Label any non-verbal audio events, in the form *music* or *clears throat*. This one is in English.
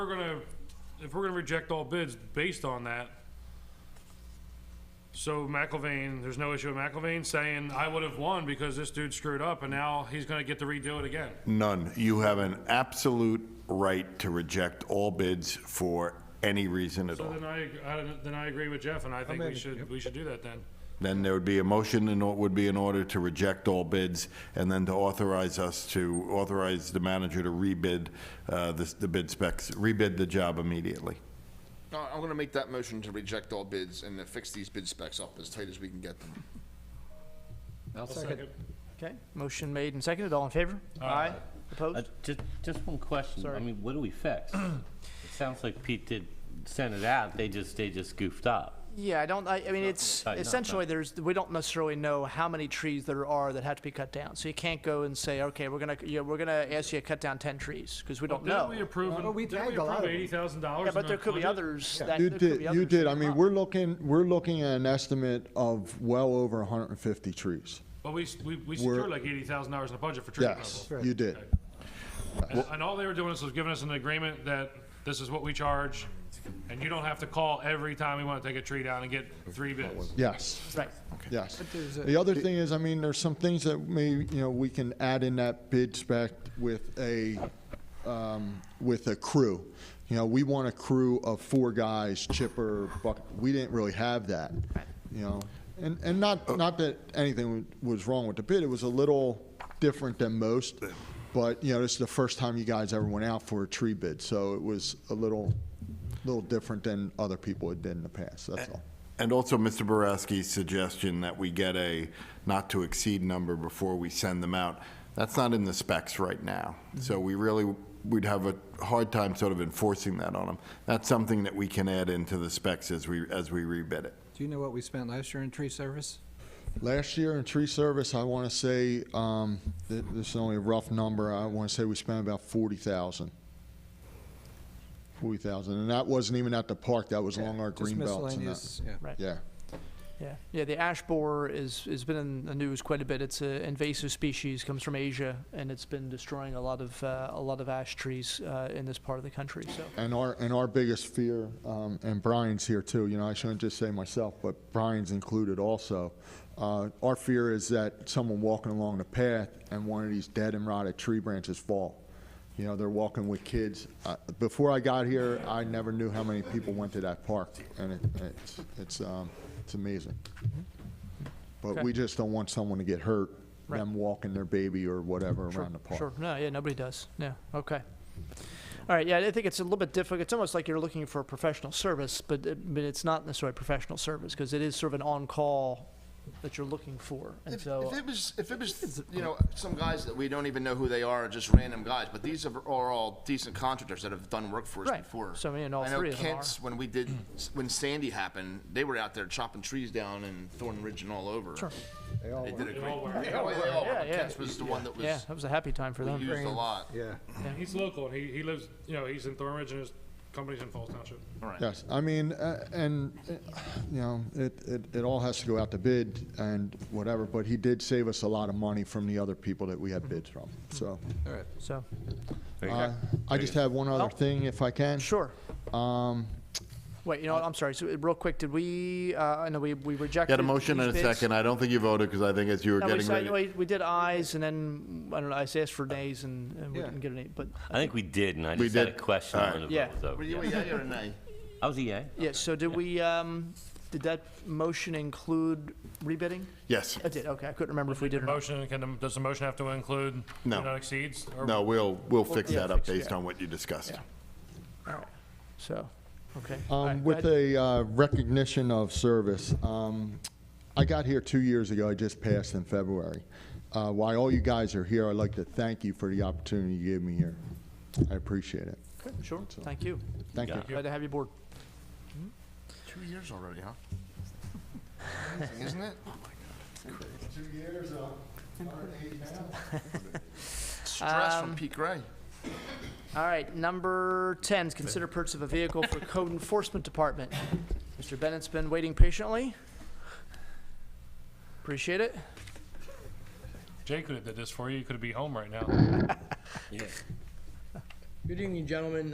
we're gonna, if we're gonna reject all bids based on that, so McIlvain, there's no issue with McIlvain saying, I would have won because this dude screwed up and now he's gonna get to redo it again. None. You have an absolute right to reject all bids for any reason at So all. then I, I- then I agree with Jeff and I think we should, we should do that then. Then there would be a motion and it would be in order to reject all bids and then to authorize us to, authorize the manager to rebid uh, this- the bid specs, rebid the job immediately. No, I'm gonna make that motion to reject all bids and to fix these bid specs up as tight as we can get them. I'll second. Okay, motion made and seconded, all in favor? Aye. Uh, Opposed? Just, just one question. Sorry. I mean, what do *clears throat* we fix? It sounds like Pete did send it out, they just, they just goofed up. Yeah, I don't, I, I mean, it's, not- not- essentially, there's, we don't necessarily know how many trees there are that have to be cut down. So you can't go and say, okay, we're gonna, you know, we're gonna ask you to cut down ten trees, because we don't Didn't know. we approve, Well, we didn't we tagged a lot approve of them. eighty thousand dollars? Yeah, but there could be others that, You there could did, be you others. did. that I come mean, up. we're looking, we're looking at an estimate of well over 150 trees. But we, s- we, we secured like eighty thousand dollars in the budget for tree Yes, removal. you did. And, and all they were doing is was giving us an agreement that this is what we charge and you don't have to call every time we wanna take a tree down and get three bids. Yes, Right, yes. The other thing is, I mean, there's some things that may, you know, we can add in that bid spec with a, um, with a crew. You know, we want a crew of four guys, chipper, buck, we didn't really have that, you know? And, and not, not that anything was wrong with the bid, it was a little different than most, but, you know, this is the first time you guys ever went out for a tree bid, so it was a little, little different than other people had did in the past, that's all. And also Mr. Boraski's suggestion that we get a not-to-exceed number before we send them out, that's not in the specs right now. So we really, we'd have a hard time sort of enforcing that on them. That's something that we can add into the specs as we, as we rebid it. Do you know what we spent last year in tree service? Last year in tree service, I want to say, um, th- this is only a rough number, I want to say we spent about forty thousand. Forty thousand, and that wasn't even at the park, that was along our Just green belts and that. miscellaneous, yeah. right. Yeah, Yeah, yeah. The ash borer is has been in the news quite a bit. It's an invasive species, comes from Asia, and it's been destroying a lot of uh, a lot of ash trees uh, in this part of the country. So and our, and our biggest fear, um, and Brian's here too, you know, I shouldn't just say myself, but Brian's included also. Uh, our fear is that someone walking along the path and one of these dead and rotted tree branches fall. You know, they're walking with kids. Uh, Before I got here, I never knew how many people went to that park, and it- it's, it's, um, it's amazing. Mm-hmm. But we just don't want someone to get hurt, them walking their baby or whatever around the sure, park. no, yeah, nobody does. Yeah, okay. All right, yeah, I think it's a little bit difficult. It's almost like you're looking for a professional service, but it, but it's not necessarily professional service because it is sort of an on-call that you're looking for, and If, so if it was, if it was, you know, some guys that we don't even know who they are, just random guys, but these are, are all decent contractors that have done work for us Right. before. So, I mean, all three of them I know Kent's, when we did, when Sandy happened, they were out there chopping trees down in Thorn Ridge and all over. Sure. They did a great. They all were, but yeah. Kent's was the one that yeah, was that was a happy time for them. used a lot. Yeah. He's local and he, he lives, you know, he's in Thornridge and his company's in Falls Township. Yes, I mean, uh, and, uh, you know, it, it, it all has to go out to bid and whatever, but he did save us a lot of money from the other people that we had Mm-hmm. bids from, so. All right. So uh, I just have one Oh. other thing, if I can. sure. Um, Wait, you know what? I'm sorry. So uh, real quick, did we? Uh, I know we we rejected. Got a motion these and a bids. second. I don't think you voted because I think as you were No, we, getting said, ready. we, we did ayes, and then mm, I don't know. I asked for nays, and, and we Yeah. didn't get any. But I think we did, and I We just had a did. question All right. when the Yeah. vote was over. Were you a yeah. yay or a nay? I was E a yay. yeah, so did we? Um, did that motion include rebidding? Yes. It did. Okay, I couldn't remember if we did or not. Motion, can, the- does the motion have to include? No. do Not exceeds? or- No, we'll, we'll fix yeah, that up fix it, based yeah. on what you discussed. So, okay. All right, um, go with ahead. a uh, recognition of service, um, I got here two years ago, I just passed in February. Uh, while all you guys are here, I'd like to thank you for the opportunity you gave me here. I appreciate it. Okay, sure. Thank you. Thank you. Glad to have you aboard. Two years already, huh? Amazing, Isn't it? Two years, uh, Stress from Pete Gray. All right, number 10 is consider purchase of a vehicle for code enforcement department. Mr. Bennett's been waiting patiently. Appreciate it. Jay could have did this for you, you could be home right now. Good evening, gentlemen.